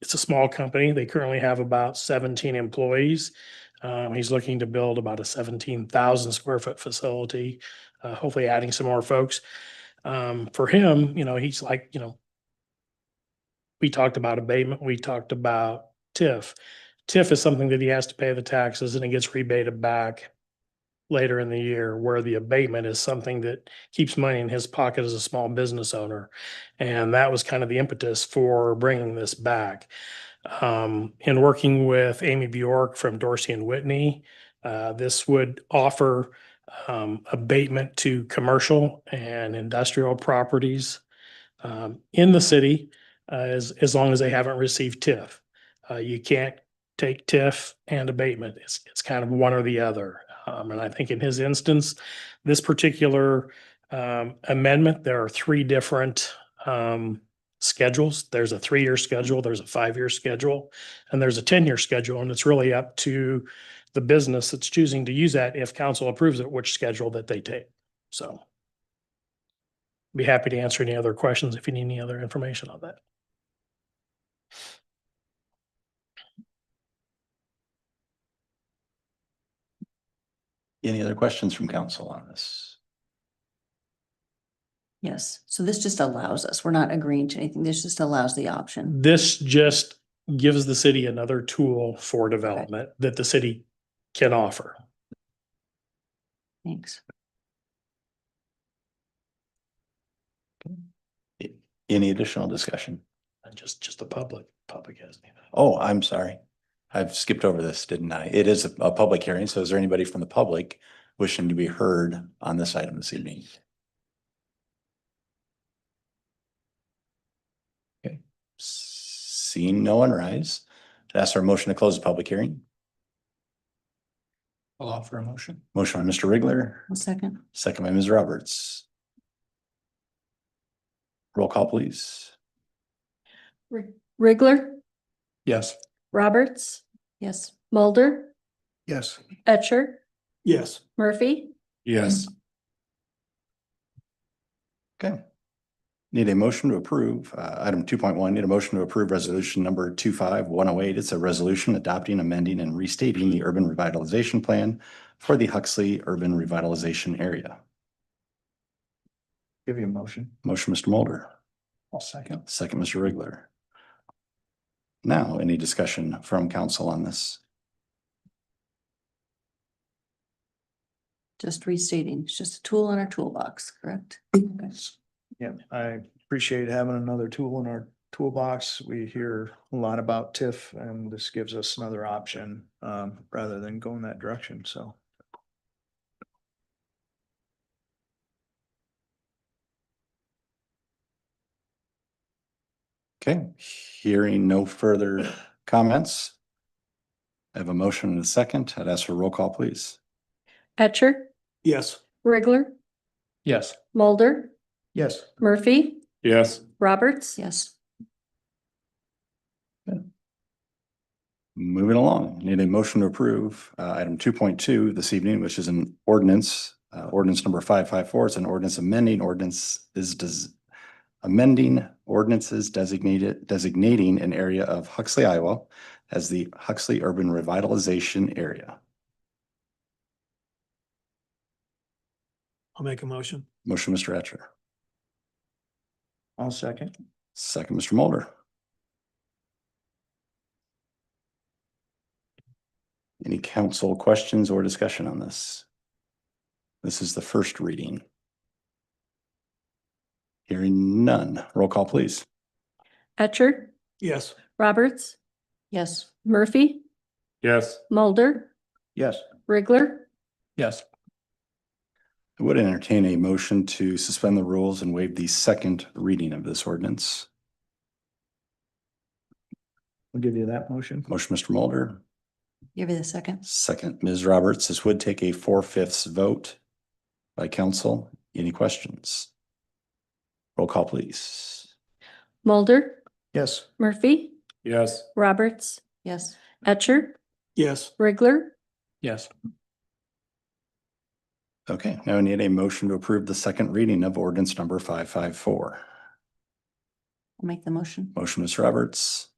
It's a small company. They currently have about seventeen employees. Um, he's looking to build about a seventeen thousand square foot facility, uh, hopefully adding some more folks. Um, for him, you know, he's like, you know, we talked about abatement, we talked about TIF. TIF is something that he has to pay the taxes and it gets rebated back later in the year, where the abatement is something that keeps money in his pocket as a small business owner. And that was kind of the impetus for bringing this back. Um, in working with Amy Bjork from Dorsey and Whitney, uh, this would offer um, abatement to commercial and industrial properties um, in the city uh, as, as long as they haven't received TIF. Uh, you can't take TIF and abatement. It's, it's kind of one or the other. Um, and I think in his instance, this particular um, amendment, there are three different um, schedules. There's a three-year schedule, there's a five-year schedule, and there's a ten-year schedule, and it's really up to the business that's choosing to use that if council approves it, which schedule that they take. So be happy to answer any other questions if you need any other information on that. Any other questions from council on this? Yes, so this just allows us, we're not agreeing to anything, this just allows the option. This just gives the city another tool for development that the city can offer. Thanks. Any additional discussion? And just, just the public, public has. any. Oh, I'm sorry. I've skipped over this, didn't I? It is a, a public hearing, so is there anybody from the public wishing to be heard on this item this evening? Okay, seeing no one rise, that's our motion to close the public hearing. I'll offer a motion. Motion by Mr. Rigler, One second. second by Ms. Roberts. Roll call, please. Rigler, Yes. Roberts, Yes, Mulder, Yes. Etcher, Yes. Murphy, Yes. Okay. Need a motion to approve, uh, item two point one, need a motion to approve resolution number two five one oh eight. It's a resolution adopting, amending and restating the urban revitalization plan for the Huxley Urban Revitalization Area. Give you a motion. Motion, Mr. Mulder, I'll second. second, Mr. Rigler. Now, any discussion from council on this? just restating, it's just a tool in our toolbox, correct? Yeah, I appreciate having another tool in our toolbox. We hear a lot about TIF and this gives us another option um, rather than going that direction, so. Okay, hearing no further comments. I have a motion and a second. I'd ask for a roll call, please. Etcher, Yes. Rigler, Yes. Mulder, Yes. Murphy, Yes. Roberts, Yes, Moving along, need a motion to approve uh, item two point two this evening, which is an ordinance, uh, ordinance number five five four. It's an ordinance amending ordinance is does amending ordinances designated designating an area of Huxley, Iowa as the Huxley Urban Revitalization Area. I'll make a motion. Motion, Mr. Etcher, I'll second. second, Mr. Mulder. Any council questions or discussion on this? This is the first reading. Hearing none. Roll call, please. Etcher, Yes. Roberts, yes, Murphy, Yes. Mulder, Yes. Rigler, Yes. I would entertain a motion to suspend the rules and waive the second reading of this ordinance. I'll give you that motion. Motion, Mr. Mulder, give me the second. second, Ms. Roberts. This would take a four-fifths vote by council. Any questions? Roll call, please. Mulder, Yes. Murphy, Yes. Roberts, Yes, Etcher, Yes. Rigler, Yes. Okay, now I need a motion to approve the second reading of ordinance number five five four. I'll make the motion. Motion, Ms. Roberts,